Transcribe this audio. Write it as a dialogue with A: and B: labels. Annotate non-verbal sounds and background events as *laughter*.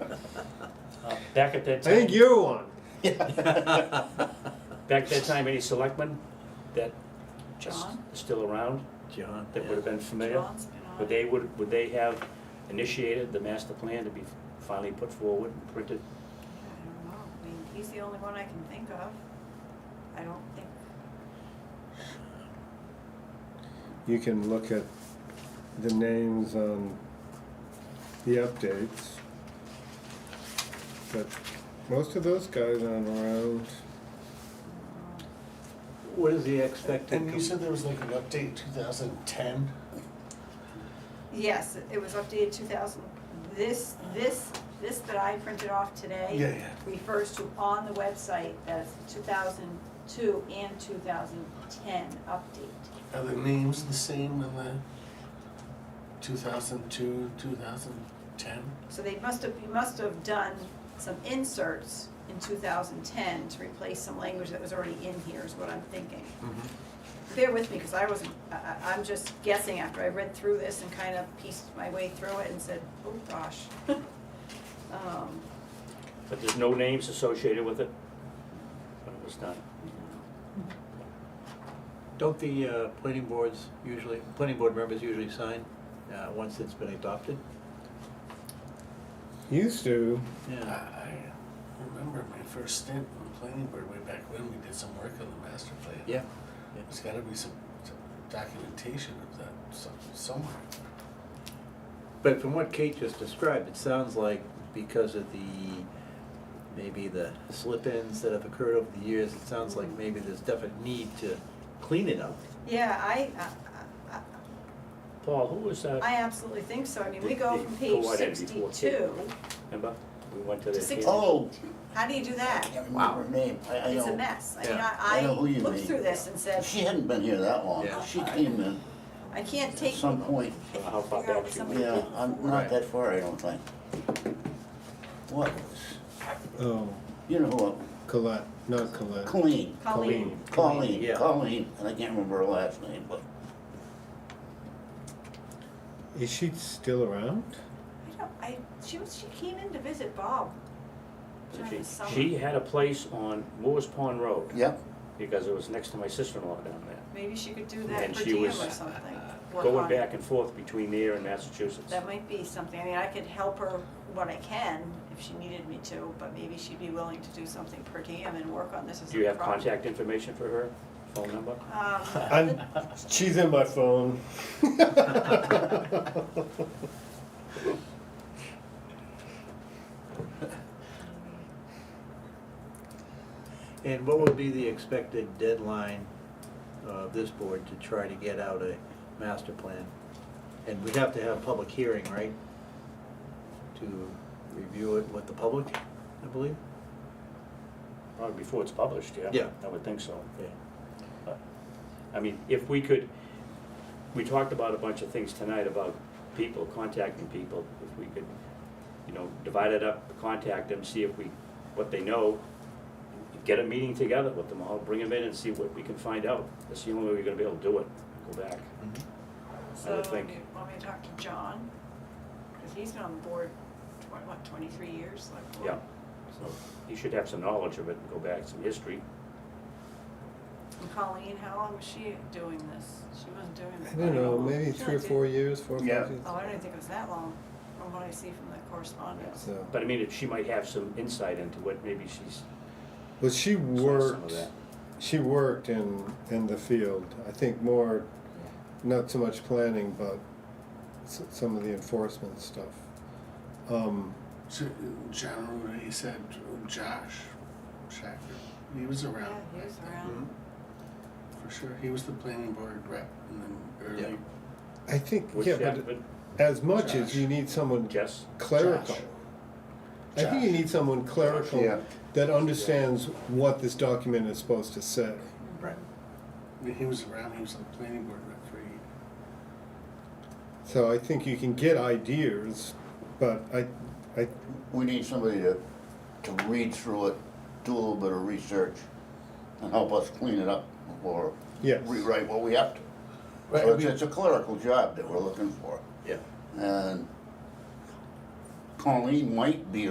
A: Um, Back at that
B: I think
A: time,
B: you're one.
A: back at that time, any selectmen that are s-
C: John,
A: still around,
D: John.
A: that would have been familiar?
C: John's been on.
A: Would they, would, would they have initiated the master plan to be finally put forward and printed?
C: I don't know, I mean, he's the only one I can think of. I don't think,
B: You can look at the names on the updates. But most of those guys aren't around.
D: What is the expected?
E: And you said there was like an update 2010?
C: yes, it was updated two thousand, this, this, this that I printed off today.
E: Yeah, yeah.
C: Refers to on the website, that's two thousand two and two thousand ten update.
E: Are the names the same in the 2002, 2010?
C: So they must have, you must have done some inserts in two thousand ten to replace some language that was already in here, is what I'm thinking.
D: Mm-hmm.
C: bear with me, because I wasn't, I- I, I'm just guessing after I read through this and kind of pieced my way through it and said, oh gosh. *laughs* Um,
A: But there's no names associated with it? When it was done?
D: Don't the uh, planning boards usually, planning board members usually sign uh, once it's been adopted?
B: Used to,
E: I
D: Yeah.
E: I remember my first stint in the planning board way back when, we did some work on the master plan.
D: Yeah.
E: There's gotta be some some documentation of that some- somewhere.
D: But from what Kate just described, it sounds like because of the, maybe the slip-ins that have occurred over the years, it sounds like maybe there's definite need to clean it up.
C: Yeah, I, I- I,
A: Paul, who was, uh,
C: I absolutely think so, I mean, we go from
A: Go
C: page
A: right in before.
C: sixty-two,
A: remember? We went to
C: To
A: the.
C: six-
F: Oh,
C: how do you do
F: I
C: that?
F: can't remember her name. I, I
C: It's a
F: know.
C: mess, I mean,
D: Yeah.
F: I know who
C: I,
F: you
C: I looked
F: mean.
C: through this and said,
F: She hadn't been here that long.
D: Yeah.
F: She came in
C: I can't
F: at
C: take.
F: some point.
A: How far
C: figure out
A: back
C: what
A: she
C: somebody
F: Yeah,
C: did
F: I'm
C: before.
F: not
D: Right.
F: that far, I don't think. What was,
B: oh,
F: you know who,
B: Colette, not Colette.
F: Colleen,
C: Colleen,
F: Colleen,
D: yeah.
F: Colleen, and I can't remember her last name, but
B: Is she still around?
C: I don't, I, she was, she came in to visit Bob during the
A: She-
C: summer.
A: She had a place on Moore's Pond Road.
F: yep.
A: Because it was next to my sister-in-law down there.
C: Maybe she could do that
A: And
C: per
A: she
C: diem or
A: was uh,
C: something. Work
A: Going
C: on it.
A: back and forth between there and Massachusetts.
C: That might be something, I mean, I could help her what I can if she needed me to, but maybe she'd be willing to do something per diem and work on this as a project.
A: Do you have contact information for her, phone number?
C: Um,
B: *laughs* I'm, she's in my phone.
D: And what would be the expected deadline uh, of this board to try to get out a master plan? And we'd have to have a public hearing, right? To review it with the public, I believe?
A: Probably before it's published, yeah?
D: Yeah.
A: I would think so.
D: Yeah.
A: I mean, if we could, we talked about a bunch of things tonight about people, contacting people. If we could, you know, divide it up, contact them, see if we, what they know, get a meeting together with them all, bring them in and see what we can find out. That's the only way we're gonna be able to do it, go back.
B: Mm-hmm.
C: So,
A: think-
C: you want me to talk to John? Because he's been on the board, tw- what, twenty-three years, like, board?
A: Yeah, so he should have some knowledge of it and go back, some history.
C: And Colleen, how long was she doing this? She wasn't doing
B: *laughs*
C: this.
B: I don't know, maybe
C: She
B: three or
C: only did-
B: four years, four or five
E: Yeah.
B: years.
C: Oh, I don't even think it was that long, from what I see from the correspondence.
B: So,
A: But I mean, if she might have some insight into what maybe she's
B: well, she
A: saw some
B: worked.
A: of that.
B: She worked in in the field. I think more, not so much planning, but s- some of the enforcement stuff. Um,
E: So, uh, John, Ruder, he said, uh, Josh Shacker, he was
C: Yeah,
E: around.
C: he was
A: Mm-hmm.
C: around.
E: For sure, he was the planning board rep and then
D: Yeah.
E: early.
B: I think
A: Would
B: yeah,
A: that-
B: but as much as
E: Josh.
B: you need someone
A: Jess?
B: clerical.
E: Josh.
B: I think you
E: Josh.
B: need someone clerical
E: Yeah.
B: that understands what this document is supposed to say.
D: Right.
E: He was around, he was the planning board rep for eight.
B: So I think you can get ideas, but I, I
F: We need somebody to, to read through it, do a little bit of research, and help us clean it up or
B: Yes.
F: rewrite what we have to. So it's, it's a clerical job that we're looking for.
D: Yeah.
F: And Colleen might be